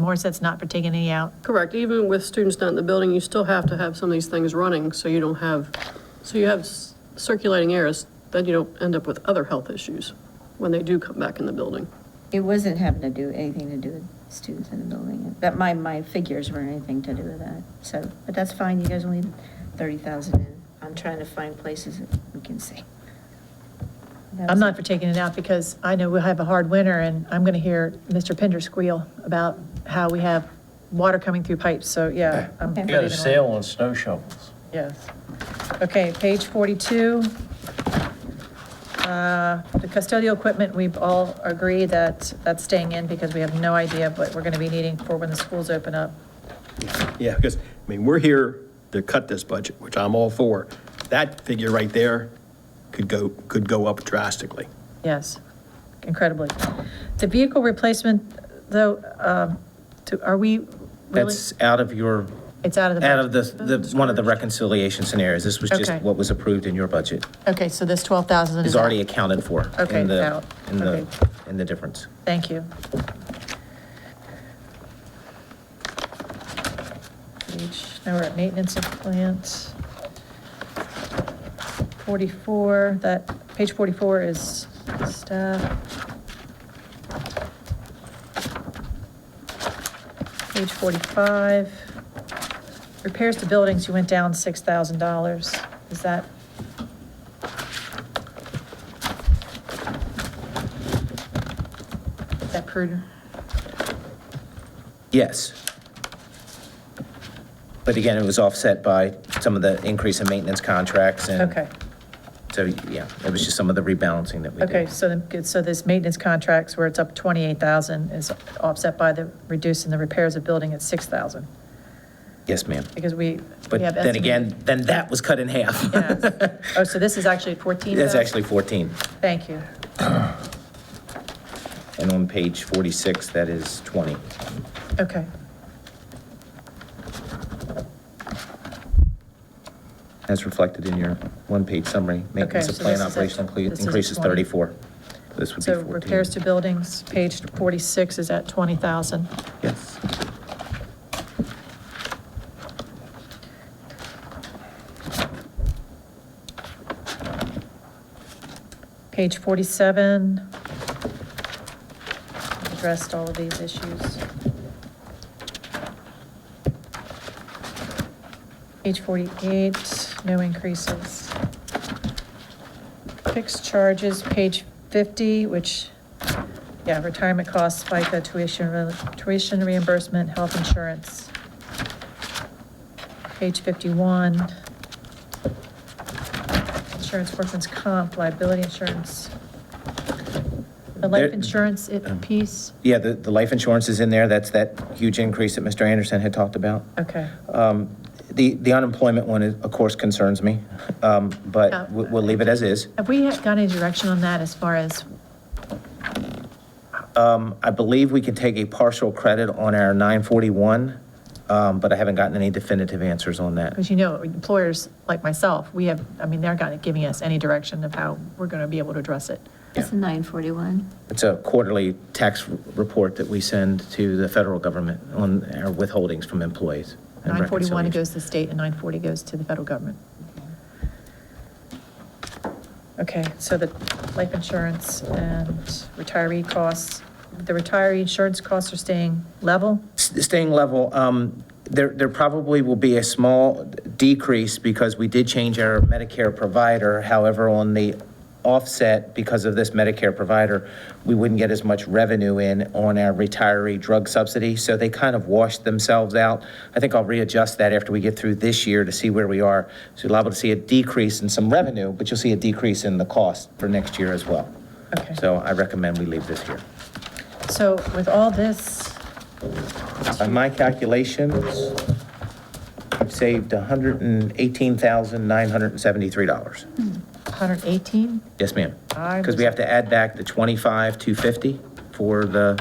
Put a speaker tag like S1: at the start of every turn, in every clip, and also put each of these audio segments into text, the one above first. S1: Moore said it's not for taking any out.
S2: Correct, even with students not in the building, you still have to have some of these things running, so you don't have, so you have s- circulating errors, then you don't end up with other health issues when they do come back in the building.
S3: It wasn't having to do, anything to do with students in the building, that my, my figures weren't anything to do with that, so, but that's fine, you guys only thirty thousand in, I'm trying to find places that we can see.
S1: I'm not for taking it out because I know we'll have a hard winter and I'm going to hear Mr. Pender squeal about how we have water coming through pipes. So yeah, I'm for
S3: Okay. You
S4: We got a
S1: leaving it on.
S4: sale on snow shovels.
S1: Yes. Okay, page 42. Uh, The custodial equipment, we've all agreed that that's staying in because we have no idea what we're going to be needing for when the schools open up.
S5: Yeah, because, I mean, we're here to cut this budget, which I'm all for. That figure right there could go, could go up drastically.
S1: Yes, incredibly. The vehicle replacement, though, um, to- are we really?
S6: That's out of your,
S1: It's out of the.
S6: out of the,
S1: budget.
S6: the, one of the reconciliation scenarios. This was just
S1: Okay.
S6: what was approved in your budget.
S1: Okay, so this 12,000 is
S6: Is already
S1: out.
S6: accounted for. in
S1: Okay,
S6: the-
S1: out.
S6: In the,
S1: Okay.
S6: in the difference.
S1: Thank you. Page, now we're at maintenance of plant. 44, that, page 44 is staff. Page 45, repairs to buildings, you went down $6,000. Is that, is that prudent?
S6: Yes. But again, it was offset by some of the increase in maintenance contracts and.
S1: Okay.
S6: So, yeah, it was just some of the rebalancing that we did.
S1: Okay, so then, good, so this maintenance contracts where it's up 28,000 is offset by the reducing the repairs of building at 6,000?
S6: Yes, ma'am.
S1: Because we. we
S6: But
S1: have
S6: then again, then that was cut in half.
S1: estimated- yes. Oh, so this is actually 14,000?
S6: That's actually 14.
S1: Thank you.
S6: And on page 46, that is 20.
S1: Okay.
S6: That's reflected in your one-page summary. Maintenance
S1: Okay,
S6: of
S1: so
S6: plan
S1: this is
S6: operational
S1: actually-
S6: incre-
S1: this is
S6: increases
S1: 20.
S6: 34. This would be
S1: So
S6: 14.
S1: repairs to buildings, page 46 is at 20,000.
S6: Yes.
S1: Page 47 addressed all of these issues. Page 48, no increases. Fixed charges, page 50, which, yeah, retirement costs, FICA, tuition, re- tuition reimbursement, health insurance. Page 51, insurance, workman's comp, liability insurance. The life
S6: There-
S1: insurance it- piece,
S6: Yeah, the, the life insurance is in there. That's that huge increase that Mr. Anderson had talked about.
S1: okay.
S6: The, the unemployment one, is- of course, concerns me, um,
S1: Oh.
S6: but we- we'll leave it as is.
S1: Have we got any direction on that as far as,
S6: I believe we can take a partial credit on our 941, um, but I haven't gotten any definitive answers on that.
S1: because you know, employers like myself, we have, I mean, they're not giving us any direction of how we're going to be able to address it.
S3: That's nine forty-one.
S6: It's a quarterly tax r- report that we send to the federal government on our withholdings from employees. and
S1: 941
S6: reconciliation.
S1: goes to the state and 940 goes to the federal government. Okay, so the life insurance and retiree costs, the retiree insurance costs are staying level?
S6: S- Staying level, um, there, there probably will be a small decrease because we did change our Medicare provider. However, on the offset, because of this Medicare provider, we wouldn't get as much revenue in on our retiree drug subsidy. So they kind of washed themselves out. I think I'll readjust that after we get through this year to see where we are. So you're liable to see a decrease in some revenue, but you'll see a decrease in the cost for next year as well.
S1: Okay.
S6: So I recommend we leave this here.
S1: So with all this,
S6: By my calculations, I've saved $118,973.
S1: 118?
S6: Yes, ma'am.
S1: I
S6: Because we have to add back the 25,250 for the,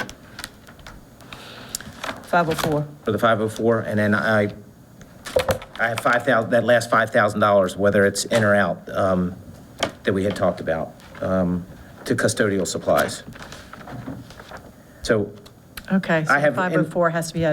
S1: 504.
S6: for the 504, and then I, I have 5,000, that last $5,000, whether it's in or out, um, that we had talked about, um, to custodial supplies. So
S1: Okay. so
S6: I have- and-
S1: 504 has to be